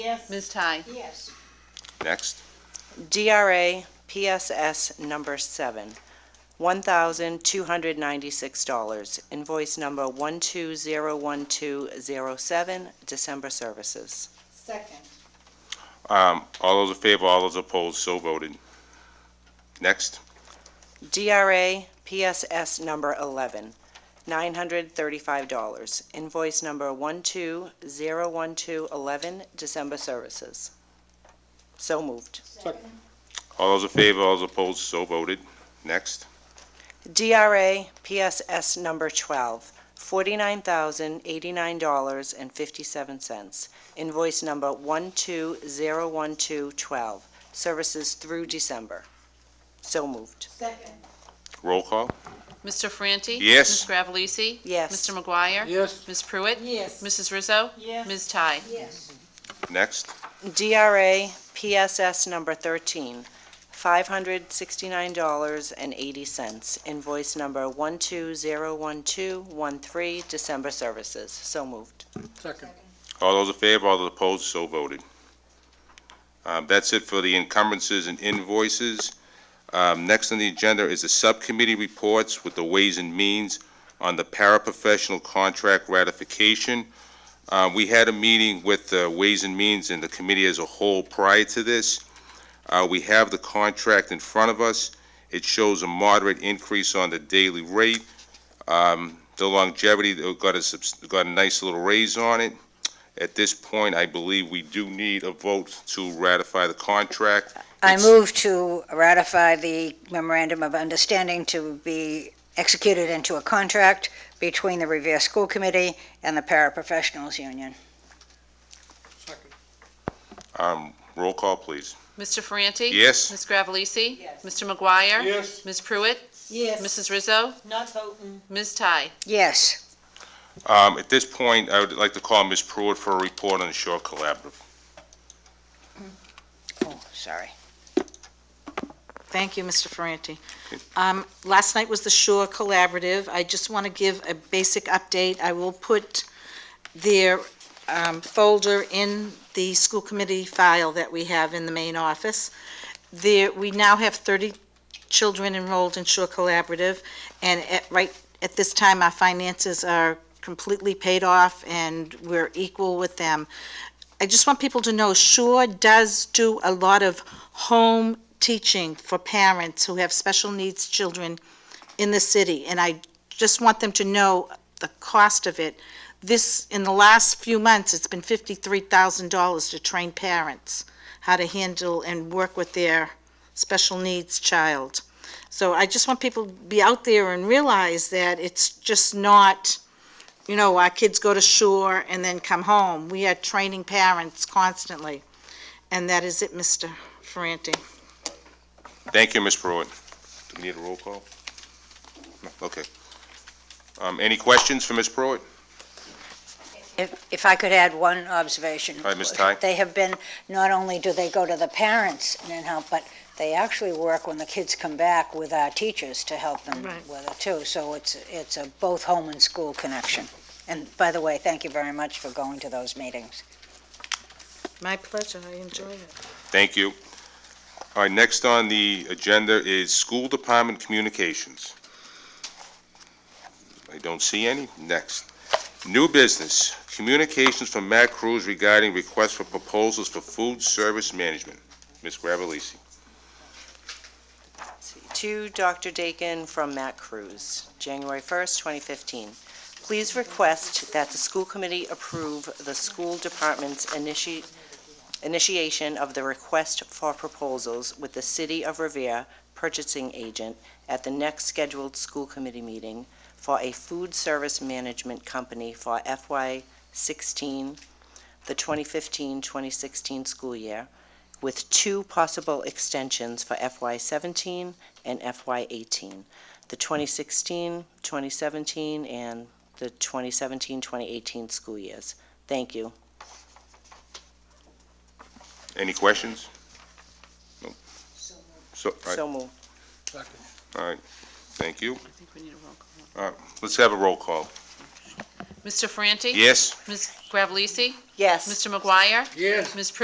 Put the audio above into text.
Yes. Ms. Ty? Yes. Next. DRA PSS number seven, $1,296. Invoice number 1201207, December services. Second. Um, all those in favor, all those opposed, so voted. Next. DRA PSS number 11, $935. Invoice number 1201211, December services. So moved. Second. All those in favor, all those opposed, so voted. Next. DRA PSS number 12, $49,089.57. Invoice number 1201212, services through December. So moved. Second. Roll call. Mr. Franti? Yes. Ms. Gravellisi? Yes. Mr. McGuire? Yes. Ms. Pruitt? Yes. Mrs. Rizzo? Yes. Ms. Ty? Yes. Next. DRA PSS number 13, $569.80. Invoice number 1201213, December services. So moved. Second. All those in favor, all those opposed, so voted. Um, that's it for the encumbrances and invoices. Um, next on the agenda is the subcommittee reports with the Ways and Means on the paraprofessional contract ratification. Uh, we had a meeting with the Ways and Means and the committee as a whole prior to this. Uh, we have the contract in front of us. It shows a moderate increase on the daily rate. Um, the longevity, uh, got a, subs- got a nice little raise on it. At this point, I believe we do need a vote to ratify the contract. I It's- move to ratify the memorandum of understanding to be executed into a contract between the Revere School Committee and the Paraprofessionals Union. Second. Um, roll call, please. Mr. Franti? Yes. Ms. Gravellisi? Yes. Mr. McGuire? Yes. Ms. Pruitt? Yes. Mrs. Rizzo? Not voting. Ms. Ty? Yes, Um, at this point, I would like to call Ms. Pruitt for a report on the Shore Collaborative. oh, sorry. Thank you, Mr. Ferranti. Um, Last night was the Shore Collaborative. I just want to give a basic update. I will put their um, folder in the school committee file that we have in the main office. There, we now have 30 children enrolled in Shore Collaborative, and at, right, at this time, our finances are completely paid off, and we're equal with them. I just want people to know, Shore does do a lot of home teaching for parents who have special needs children in the city, and I just want them to know the cost of it. This, in the last few months, it's been fifty-three thousand dollars to train parents how to handle and work with their special needs child. So I just want people to be out there and realize that it's just not, you know, our kids go to shore and then come home. We are training parents constantly. And that is it, Mr. Ferranti. Thank you, Ms. Pruitt. Do we need a roll call? No, Okay. Um, any questions for Ms. Pruitt? If, if I could add one observation. right, Ms. Ty. They have been, not only do they go to the parents and help, but they actually work when the kids come back with our teachers to help them Right. with it too. So it's, it's a both home and school connection. And by the way, thank you very much for going to those meetings. My pleasure, I enjoy it. Thank you. All right, next on the agenda is School Department Communications. I don't see any. Next. New business, communications from Matt Cruz regarding requests for proposals for food service management. Ms. Gravellisi. To Dr. Dakin from Matt Cruz, January 1st, 2015. Please request that the school committee approve the school department's initi- initiation of the request for proposals with the City of Revere purchasing agent at the next scheduled school committee meeting for a food service management company for FY16, the 2015-2016 school year, with two possible extensions for FY17 and FY18, the 2016, 2017, and the 2017, 2018 school years. Thank you. Any questions? No. So, all right, So moved. Second. all right. Thank you. I think we need a roll call. All right, let's have a roll call. Mr. Franti? Yes? Ms. Gravellisi? Yes. Mr. McGuire? Yes. Ms. Pritchard?